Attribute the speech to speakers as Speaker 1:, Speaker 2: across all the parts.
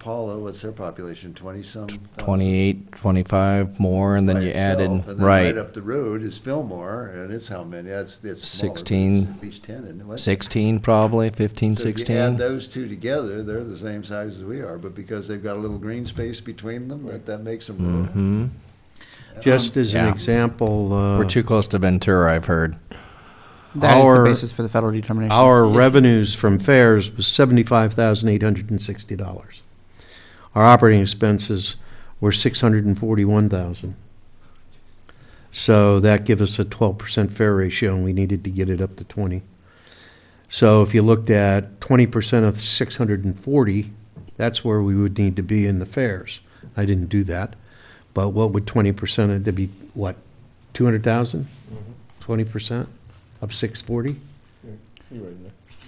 Speaker 1: Paula, what's their population, twenty-some? thousand?
Speaker 2: 28, 25 more, and then you
Speaker 1: Myself,
Speaker 2: added,
Speaker 1: and then
Speaker 2: right,
Speaker 1: up the road is Fillmore, and it's how many, that's, it's smaller, but it's
Speaker 2: 16,
Speaker 1: At least ten, isn't it? What?
Speaker 2: 16 probably, 15,
Speaker 1: So if you add
Speaker 2: 16.
Speaker 1: those two together, they're the same size as we are, but because they've got a little green space between them, that, that makes them. rural.
Speaker 2: hmm
Speaker 3: Just as an
Speaker 2: Um, Yeah.
Speaker 3: example,
Speaker 2: We're
Speaker 3: uh,
Speaker 2: too close to Ventura, I've heard.
Speaker 4: That is the
Speaker 3: Our-
Speaker 4: basis for the federal determination.
Speaker 3: our revenues from fares was seventy-five thousand eight hundred and sixty dollars. Our operating expenses were six hundred and forty-one thousand. So that give us a twelve percent fare ratio, and we needed to get it up to twenty. So if you looked at twenty percent of six hundred and forty, that's where we would need to be in the fares. I didn't do that, but what would twenty percent, it'd be, what, two hundred thousand? Twenty percent of six forty?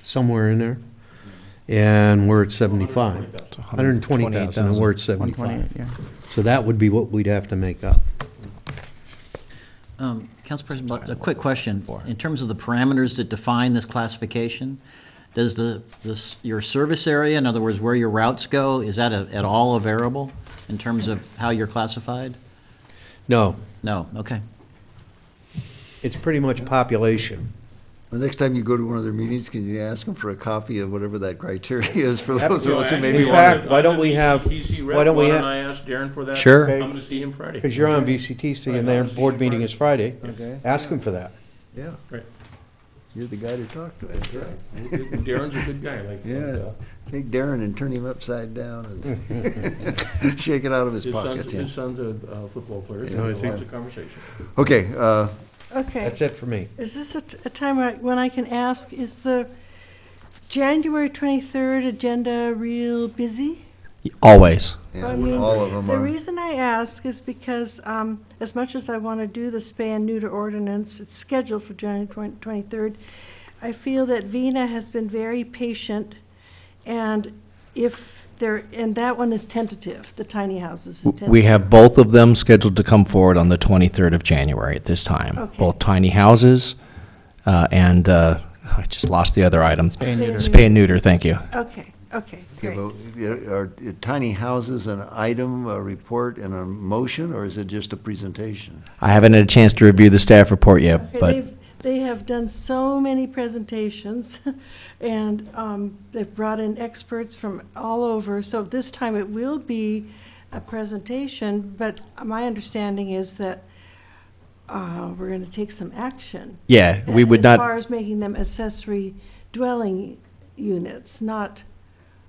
Speaker 3: somewhere in there. And we're at 75. 120,000, and we're at 75.
Speaker 4: 128, yeah.
Speaker 3: So that would be what we'd have to make up.
Speaker 5: Um, Council President, Blunt, a quick question. In terms of the parameters that define this classification, does the, this, your service area, in other words, where your routes go, is that a- at all a variable in terms of how you're classified?
Speaker 3: No,
Speaker 5: No, okay.
Speaker 3: it's pretty much population.
Speaker 1: The next time you go to one of their meetings, can you ask them for a copy of whatever that criteria is for those of us who maybe
Speaker 3: In
Speaker 1: want
Speaker 3: fact,
Speaker 1: to?
Speaker 3: why don't we have-
Speaker 6: TC rep,
Speaker 3: why don't we
Speaker 6: Why
Speaker 3: ha-
Speaker 6: don't I ask Darren for that?
Speaker 2: Sure.
Speaker 6: I'm gonna see him Friday.
Speaker 3: Because you're on VCTC and their board meeting is Friday.
Speaker 1: Okay.
Speaker 3: Ask them for that.
Speaker 1: Yeah,
Speaker 6: Right.
Speaker 1: you're the guy to talk to, that's right.
Speaker 6: Darren's a good guy, like. uh,
Speaker 1: Yeah, take Darren and turn him upside down and shake it out of his
Speaker 6: His son's,
Speaker 1: pockets. yeah.
Speaker 6: his son's a uh, football player,
Speaker 1: Oh,
Speaker 6: so
Speaker 1: is
Speaker 6: lots
Speaker 1: he?
Speaker 6: of conversation.
Speaker 1: Okay, uh,
Speaker 7: Okay,
Speaker 3: That's it for me.
Speaker 7: is this a, t- a time where- when I can ask, is the January 23rd agenda real busy?
Speaker 2: Always.
Speaker 1: yeah,
Speaker 7: I mean,
Speaker 1: all of them
Speaker 7: The
Speaker 1: are,
Speaker 7: reason I ask is because, um, as much as I want to do the spay and neuter ordinance, it's scheduled for January 20- 23rd. I feel that Vina has been very patient, and if there, and that one is tentative, the tiny houses is tentative.
Speaker 2: We have both of them scheduled to come forward on the 23rd of January at this time.
Speaker 7: Okay.
Speaker 2: Both tiny houses uh, and, uh, I just lost the other items. Spay
Speaker 7: neuter.
Speaker 2: and neuter, thank you.
Speaker 7: Okay, okay,
Speaker 1: yeah,
Speaker 7: great.
Speaker 1: but, yeah, are uh, tiny houses an item, a report, and a motion, or is it just a presentation?
Speaker 2: I haven't had a chance to review the staff report yet,
Speaker 7: Okay,
Speaker 2: but
Speaker 7: they've- They have done so many presentations, and um, they've brought in experts from all over, so this time it will be a presentation, but my understanding is that uh, we're going to take some action.
Speaker 2: yeah, we would
Speaker 7: As far
Speaker 2: not,
Speaker 7: as making them accessory dwelling units, not,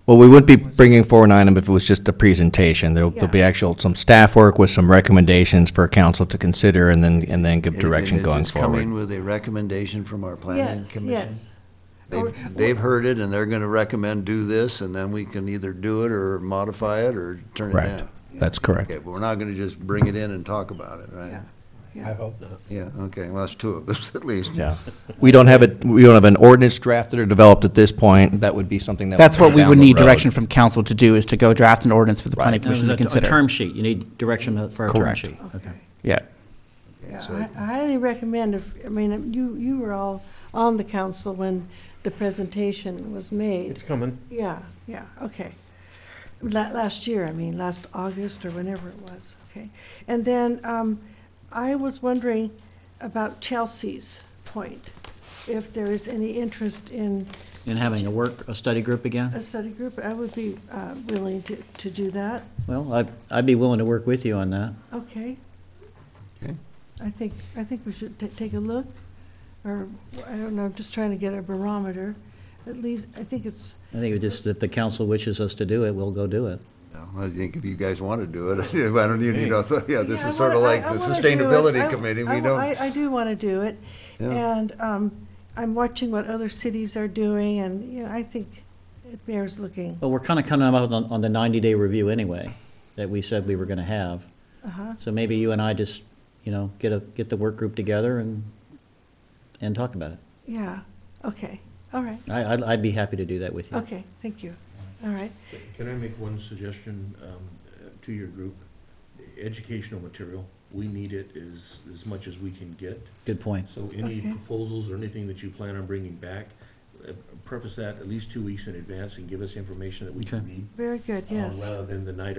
Speaker 2: well, we wouldn't be bringing forward an item if it was just a presentation. There'll, there'll
Speaker 7: Yeah.
Speaker 2: be actual, some staff work with some recommendations for council to consider and then, and then give
Speaker 1: And-
Speaker 2: direction
Speaker 1: and is
Speaker 2: going
Speaker 1: this Coming
Speaker 2: forward.
Speaker 1: with a recommendation from our planning
Speaker 7: yes,
Speaker 1: commission?
Speaker 7: yes. Or-
Speaker 1: They've, they've heard it, and they're gonna recommend do this, and then we can either do it, or modify it, or turn it
Speaker 2: Right.
Speaker 1: down.
Speaker 2: That's correct.
Speaker 1: Okay, but we're not gonna just bring it in and talk about it, right?
Speaker 7: Yeah.
Speaker 3: I hope not.
Speaker 1: Yeah, okay, well, that's two of us at least.
Speaker 2: Yeah. We don't have it, we don't have an ordinance drafted or developed at this point. That would be something that.
Speaker 4: That's
Speaker 2: come
Speaker 4: what we
Speaker 2: down
Speaker 4: would
Speaker 2: the
Speaker 4: need
Speaker 2: road.
Speaker 4: direction from council to do, is to go draft an ordinance for the planning
Speaker 5: No,
Speaker 4: commission to
Speaker 5: there's A a
Speaker 4: consider.
Speaker 5: term sheet, you need direction for a term
Speaker 2: Correct.
Speaker 5: sheet. Okay.
Speaker 4: Yeah.
Speaker 7: Yeah,
Speaker 1: So-
Speaker 7: I I highly recommend, if, I mean, you, you were all on the council when the presentation was made.
Speaker 3: It's coming.
Speaker 7: Yeah, yeah, okay. La- last year, I mean, last August or whenever it was, okay. And then, um, I was wondering about Chelsea's point, if there is any interest in
Speaker 5: And having a work, a study group
Speaker 7: a
Speaker 5: again?
Speaker 7: study group, I would be, uh, willing to, to do that,
Speaker 5: Well, I'd, I'd be willing to work with you on that.
Speaker 7: okay?
Speaker 1: Okay.
Speaker 7: I think, I think we should ta- take a look, or, I don't know, I'm just trying to get a barometer. At least, I think it's,
Speaker 5: I think it just, if the council wishes us to do it, we'll go do it.
Speaker 1: No, I think if you guys want to do it, I don't even, you know, yeah, this
Speaker 7: Yeah, I
Speaker 1: is sort of
Speaker 7: wanna- I-
Speaker 1: like
Speaker 7: I
Speaker 1: the
Speaker 7: wanna do it. I-
Speaker 1: Sustainability Committee,
Speaker 7: I
Speaker 1: we
Speaker 7: wa-
Speaker 1: don't.
Speaker 7: I, I do want to do it,
Speaker 1: Yeah.
Speaker 7: and um, I'm watching what other cities are doing, and, you know, I think it bears looking.
Speaker 5: Well, we're kind of coming up on, on the 90-day review anyway, that we said we were going to have.
Speaker 7: Uh-huh.
Speaker 5: So maybe you and I just, you know, get a, get the work group together and, and talk about it.
Speaker 7: Yeah, okay, all right,
Speaker 5: I, I'd, I'd be happy to do that with you.
Speaker 7: okay, thank you, all right.
Speaker 6: Can I make one suggestion um, uh, to your group? Educational material, we need it as, as much as we can get.
Speaker 5: Good point.
Speaker 6: So any
Speaker 7: Okay.
Speaker 6: proposals or anything that you plan on bringing back, uh, preface that at least two weeks in advance and give us information that we
Speaker 5: Okay.
Speaker 6: can read.
Speaker 7: Very good,
Speaker 6: uh,
Speaker 7: yes.
Speaker 6: Rather than the night